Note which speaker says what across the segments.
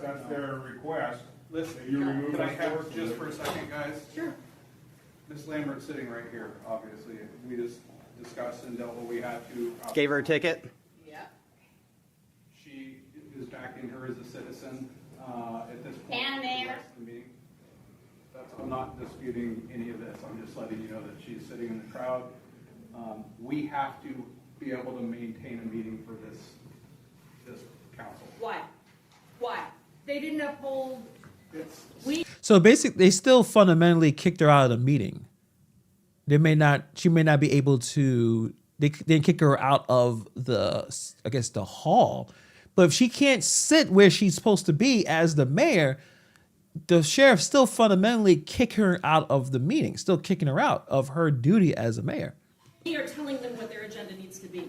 Speaker 1: that's their request.
Speaker 2: Listen,
Speaker 1: You remove
Speaker 2: can I
Speaker 1: the
Speaker 2: have
Speaker 1: force.
Speaker 2: just for a second, guys?
Speaker 3: Sure.
Speaker 2: Ms. Lambert's sitting right here, obviously. We just discussed and dealt what we had to. uh,
Speaker 4: Gave her a ticket?
Speaker 3: Yeah.
Speaker 2: She is backing her as a citizen uh, at this point.
Speaker 3: And
Speaker 2: for the
Speaker 3: mayor.
Speaker 2: rest of the meeting. That's, I'm not disputing any of this, I'm just letting you know that she's sitting in the crowd. Um, We have to be able to maintain a meeting for this, this council.
Speaker 3: Why? Why? They didn't uphold.
Speaker 2: It's,
Speaker 5: So basically, they still fundamentally kicked her out of the meeting. They may not. She may not be able to. They they kick her out of the. I guess the hall. But if she can't sit where she's supposed to be as the mayor, the sheriff still fundamentally kick her out of the meeting. Still kicking her out of her duty as a mayor.
Speaker 6: They are telling them what their agenda needs to be.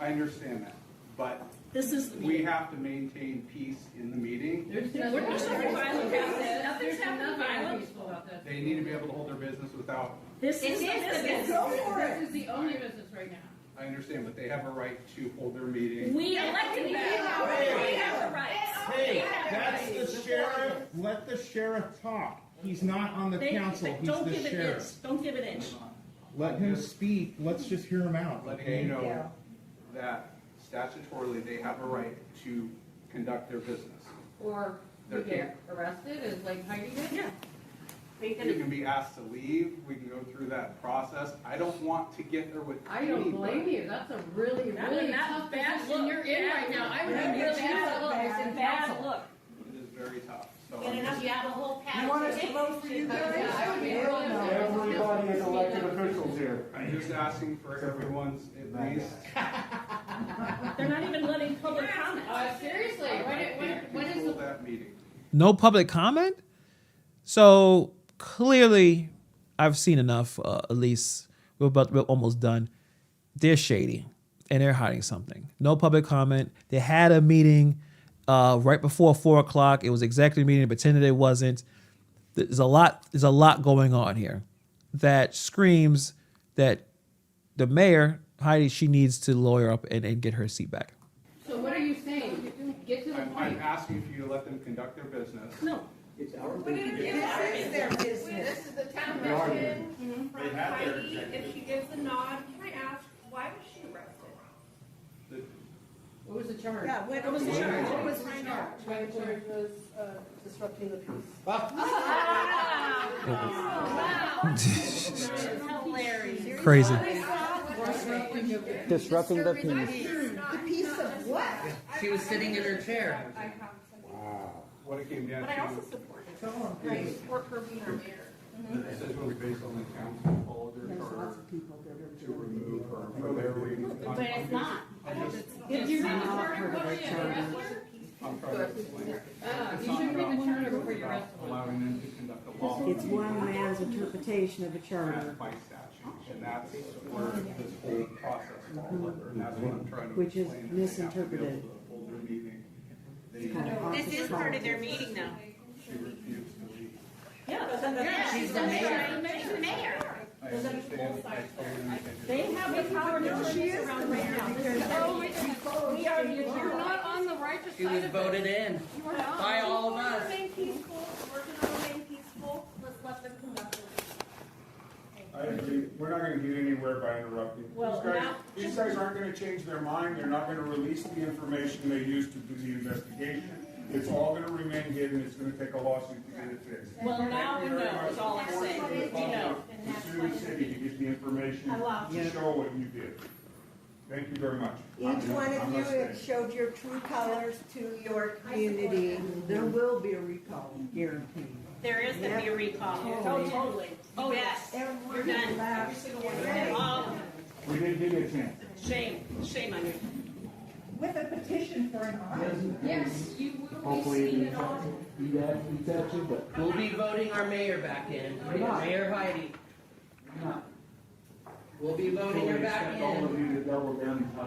Speaker 2: I understand that, but
Speaker 6: This is the
Speaker 2: we
Speaker 6: meeting.
Speaker 2: have to maintain peace in the meeting.
Speaker 6: We're not talking violent happening. Nothing's happening violent.
Speaker 2: They need to be able to hold their business without,
Speaker 6: This is the business.
Speaker 3: This is the only business right now.
Speaker 2: I understand, but they have a right to hold their meeting.
Speaker 6: We elected them. They have the rights. They
Speaker 1: Hey,
Speaker 6: have the
Speaker 1: that's the
Speaker 6: rights.
Speaker 1: sheriff, let the sheriff talk. He's not on the
Speaker 6: They-
Speaker 1: council, he's
Speaker 6: Don't
Speaker 1: the
Speaker 6: give an
Speaker 1: sheriff.
Speaker 6: inch. Don't give an inch.
Speaker 1: Let him speak, let's just hear him out.
Speaker 2: letting you know that statutorily, they have a right to conduct their business.
Speaker 3: Or
Speaker 2: They're
Speaker 3: you
Speaker 2: here.
Speaker 3: get arrested, is like Heidi did?
Speaker 6: Yeah.
Speaker 3: We
Speaker 2: We can be asked to leave, we can go through that process. I don't want to get there with
Speaker 3: I don't blame
Speaker 2: anybody.
Speaker 3: you, that's a really,
Speaker 6: That-
Speaker 3: really
Speaker 6: that
Speaker 3: tough
Speaker 6: bad
Speaker 3: position
Speaker 6: look.
Speaker 3: you're in right now. I would have really bad look as in
Speaker 6: Bad
Speaker 3: council.
Speaker 6: look.
Speaker 2: It is very tough, so.
Speaker 6: And
Speaker 2: I'm
Speaker 6: enough,
Speaker 2: just-
Speaker 6: you have a whole pack.
Speaker 3: Yeah, I would be really upset.
Speaker 1: is elected officials here.
Speaker 2: I'm just asking for everyone's at least.
Speaker 6: They're not even letting public comment.
Speaker 3: Uh, seriously, what, it- what, what is
Speaker 2: Control
Speaker 3: the,
Speaker 2: that meeting.
Speaker 5: No public comment. So clearly, I've seen enough. Uh, at least we're about we're almost done. They're shady and they're hiding something. No public comment. They had a meeting uh, right before four o'clock. It was executive meeting. They pretended it wasn't. There's a lot. There's a lot going on here that screams that the mayor Heidi she needs to lawyer up and, and get her seat back.
Speaker 3: so what are you saying? Get to the
Speaker 2: I'm,
Speaker 3: point.
Speaker 2: I'm asking for you to let them conduct their business.
Speaker 6: No.
Speaker 7: This is their business.
Speaker 8: is the town question from Heidi, if she gives a nod, can I ask, why was she arrested?
Speaker 2: The-
Speaker 3: What was the charge?
Speaker 7: Yeah, what what was the charge? What was the charge?
Speaker 8: My charge was disrupting the peace.
Speaker 6: Hilarious.
Speaker 5: Crazy.
Speaker 4: Disrupting the peace.
Speaker 7: The piece of what?
Speaker 8: She was sitting in her chair. I have,
Speaker 2: What it came down
Speaker 8: but I also
Speaker 2: to,
Speaker 8: support it. I support her being our mayor.
Speaker 2: this is what we based on the council, all of their charter to remove her from their meeting.
Speaker 6: But it's not.
Speaker 3: If you're in the charter, what is it?
Speaker 2: I'm trying to explain it.
Speaker 3: Uh,
Speaker 2: It's
Speaker 3: you should
Speaker 2: not
Speaker 3: read the
Speaker 2: about-
Speaker 3: charter
Speaker 2: it's
Speaker 3: before you
Speaker 2: about
Speaker 3: arrest someone.
Speaker 2: Allowing them to conduct a law.
Speaker 7: It's one man's interpretation of a charter,
Speaker 2: That's by statute, and that's where this whole process falls under, and that's what I'm trying to
Speaker 7: Which is
Speaker 2: explain, that they have to be able
Speaker 7: misinterpreted.
Speaker 2: to hold their meeting. They
Speaker 7: This is part of their meeting
Speaker 6: now.
Speaker 2: she refused to leave.
Speaker 6: Yeah, she's the mayor. She's the mayor.
Speaker 2: I understand, I totally understand.
Speaker 6: They have the power to turn this around right now. This is their meeting. We are the
Speaker 3: You're
Speaker 6: agenda.
Speaker 3: not on the righteous
Speaker 9: She was
Speaker 3: side of it.
Speaker 9: voted in.
Speaker 8: You are not.
Speaker 9: By all of us.
Speaker 8: Remain peaceful, we're gonna remain peaceful, let's let them conduct their business.
Speaker 1: I agree, we're not gonna get anywhere by interrupting.
Speaker 6: Well,
Speaker 1: These guys-
Speaker 6: now-
Speaker 1: These guys aren't gonna change their mind, they're not gonna release the information they used to do the investigation. It's all gonna remain hidden, it's gonna take a lawsuit to get it fixed.
Speaker 6: Well, now we
Speaker 1: Thank you very
Speaker 6: know,
Speaker 1: much.
Speaker 6: is all I'm saying.
Speaker 1: Fortunately,
Speaker 6: We know.
Speaker 1: You sue the city to get the information
Speaker 6: I love
Speaker 1: to show what you did. Thank you very much.
Speaker 7: Each one
Speaker 1: I'm
Speaker 7: of you
Speaker 1: listening.
Speaker 7: had showed your true colors to your community. There will be a recall, guaranteed.
Speaker 6: There is gonna be a recall. Oh, totally. Oh, yes. You're done.
Speaker 7: Every single one
Speaker 6: Oh,
Speaker 1: We didn't give you a chance.
Speaker 6: shame, shame on you.
Speaker 7: With a petition for an audit.
Speaker 3: Yes, you will be seen at all.
Speaker 9: We'll be voting our mayor back in. Mayor Heidi. We'll be voting her back in.